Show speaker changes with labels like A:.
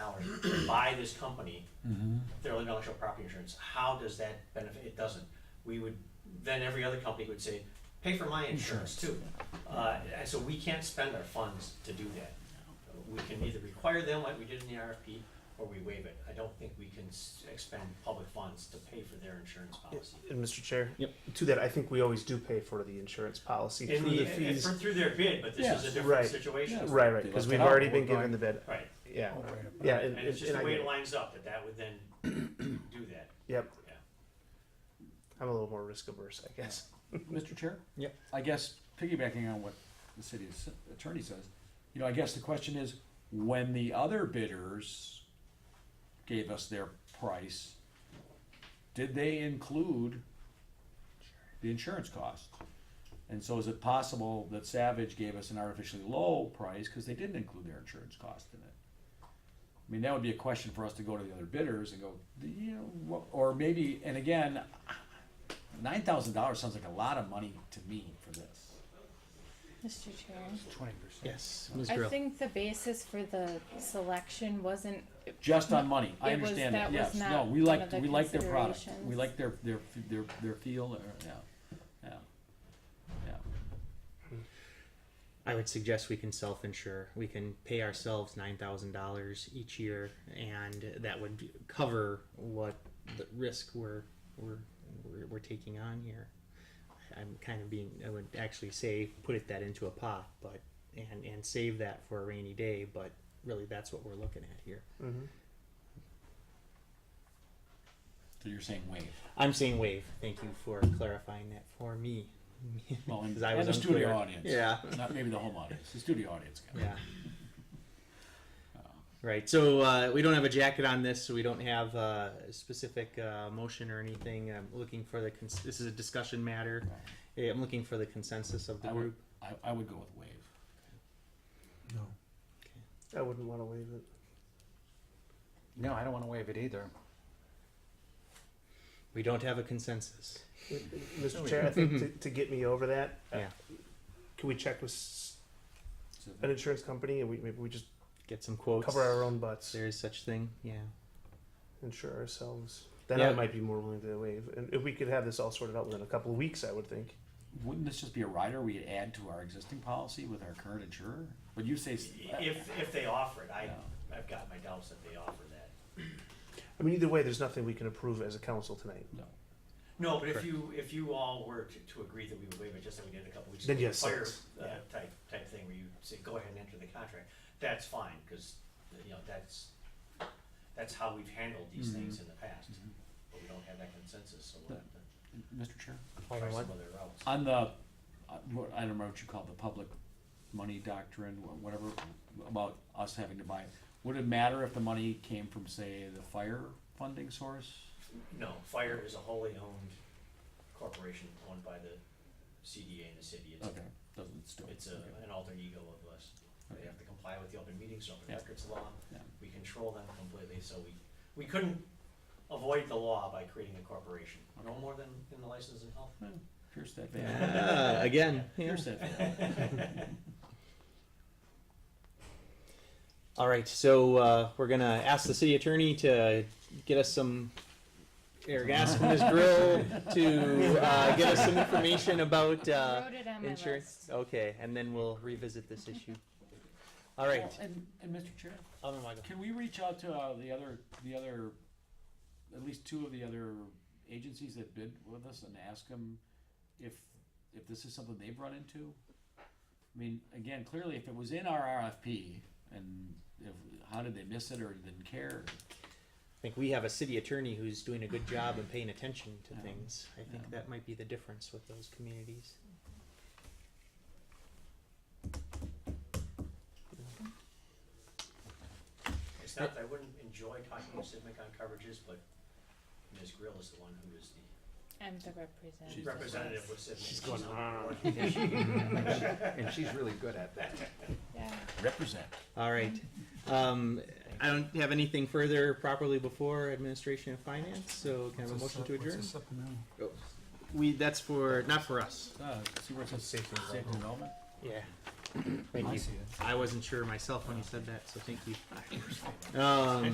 A: buy this company,
B: Mm-hmm.
A: their intellectual property insurance, how does that benefit, it doesn't. We would, then every other company would say, pay for my insurance too. Uh, and so we can't spend our funds to do that. We can either require them like we did in the RFP, or we waive it. I don't think we can s- expend public funds to pay for their insurance policy.
B: And Mr. uh, Chair,
C: Yep.
B: to that, I think we always do pay for the insurance policy
A: In
B: through
A: the,
B: the fees.
A: for- through their bid, but this is a
C: Yes.
A: different
B: Right.
A: situation.
C: Yes.
B: Right, right,
C: They
B: because
C: left
B: we've
C: it out,
B: already
C: we're
B: been given
C: going-
B: the bid,
A: Right,
B: yeah,
C: Oh, right.
B: yeah, and,
A: and it's
B: and
A: just
B: and I
A: the way
B: get
A: it
B: it,
A: lines up that that would then do that.
B: yep.
A: Yeah.
B: I'm a little more risk averse, I guess.
C: Mr. Chair?
D: Yep.
C: I guess piggybacking on what the city s- attorney says, you know, I guess the question is, when the other bidders gave us their price, did they include the insurance cost? And so is it possible that Savage gave us an artificially low price because they didn't include their insurance cost in it? I mean, that would be a question for us to go to the other bidders and go, "Do you know, what, or maybe, and again, Nine thousand dollars sounds like a lot of money to me for this.
E: Mr. Chair,
D: Yes, Ms.
E: I
D: Drill.
E: think the basis for the selection wasn't,
C: Just on money, I
E: It was-
C: understand that,
E: that
C: yes,
E: was not
C: no, we
E: one
C: like,
E: of the
C: we like their product, we
E: considerations.
C: like their, their, f- their, their feel, or, yeah, yeah, yeah.
D: I would suggest we can self-insure. We can pay ourselves nine thousand dollars each year, and that would cover what the risk we're we're we're, we're taking on here. I'm kind of being. I would actually say put it that into a pot, but and and save that for a rainy day. But really, that's what we're looking at here.
A: Mm-hmm.
B: Mhm.
C: So you're saying wave,
D: I'm saying wave. Thank you for clarifying that for me.
C: well, and,
D: 'Cause I
C: and
D: was
C: the studio
D: unclear.
C: audience.
D: Yeah.
C: Not maybe the home audience, the studio audience got it.
D: Yeah. Right, so uh, we don't have a jacket on this, so we don't have a specific uh, motion or anything. I'm looking for the, cons- this is a discussion matter. Eh, I'm looking for the consensus of the
C: Uh, I would-
D: group.
C: I, I would go with wave.
B: I wouldn't wanna waive it.
F: No, I don't want to waive it either.
D: We don't have a consensus.
A: Oh,
B: Mr. Chair, I think to, to get me over that, uh,
D: Yeah.
B: can we check with s-
C: So
B: an insurance company and we, maybe we just
D: Get some quotes.
B: cover our own butts,
D: There is such thing, yeah.
B: insure ourselves? Then
D: Yeah.
B: I might be more willing to waive, and if we could have this all sorted out within a couple of weeks, I would think.
C: Wouldn't this just be a rider we'd add to our existing policy with our current insurer? Would you say? s-
A: If, if they offer it, I,
C: Yeah.
A: I've got my doubts that they offer that.
B: I mean, either way, there's nothing we can approve as a council tonight.
C: No.
A: No, but if you, if you all were to, to agree that we would waive it, just like we did a couple weeks ago.
B: Then yes,
A: Fire,
B: that's-
A: uh, type, type thing where you say, go ahead and enter the contract, that's fine, cause, you know, that's, that's how we've handled these things in the past. But we don't have that consensus, so we'll have to
C: Mr. Chair?
A: try some other routes.
C: On the, uh, what, I don't know what you call it, the public money doctrine, wha- whatever, about us having to buy it. Would it matter if the money came from, say, the fire funding source?
A: No, fire is a wholly owned corporation owned by the CDA in the city, it's,
C: Okay, doesn't still.
A: it's uh, a,
C: okay.
A: an alter ego of us. They have to comply with the open meetings, open
C: Yeah.
A: records law,
C: Yeah.
A: we control them completely, so we, we couldn't avoid the law by creating a corporation, no more than in the license and health.
C: Eh, Pierce that veil,
D: Ah, Again, yeah.
C: pierce that veil.
D: All right, so uh, we're gonna ask the city attorney to get us some, or ask Ms. Grill to uh, get us some information about
E: I
D: uh,
E: wrote it on my
D: insurance.
E: list.
D: Okay, and then we'll revisit this issue. All right.
C: Well, And, and Mr. Chair,
D: Alderman Weigel.
C: can we reach out to, uh, the other, the other, at least two of the other agencies that bid with us and ask them if, if this is something they've run into? I mean, again, clearly if it was in our RFP and if, how did they miss it or didn't care?
D: I think we have a city attorney who's doing a good job and paying attention to things. I
C: Yeah.
D: think that might be the difference with those communities.
A: It's not that I wouldn't enjoy talking to Civic on coverages, but Ms. Grill is the one who is the
E: I'm the representative.
C: She's-
A: representative with Civic.
B: She's going on.
F: And she's really good at that.
E: Yeah.
C: Represent.
D: All right. Um, I don't have anything further properly before administration and finance, so can I have a motion to adjourn? We, that's for, not for us.
C: Uh, see where it says
B: Safety and
C: safety development?
D: Yeah.
C: Uh,
D: Thank you. I wasn't sure myself when you said that, so thank you. Um,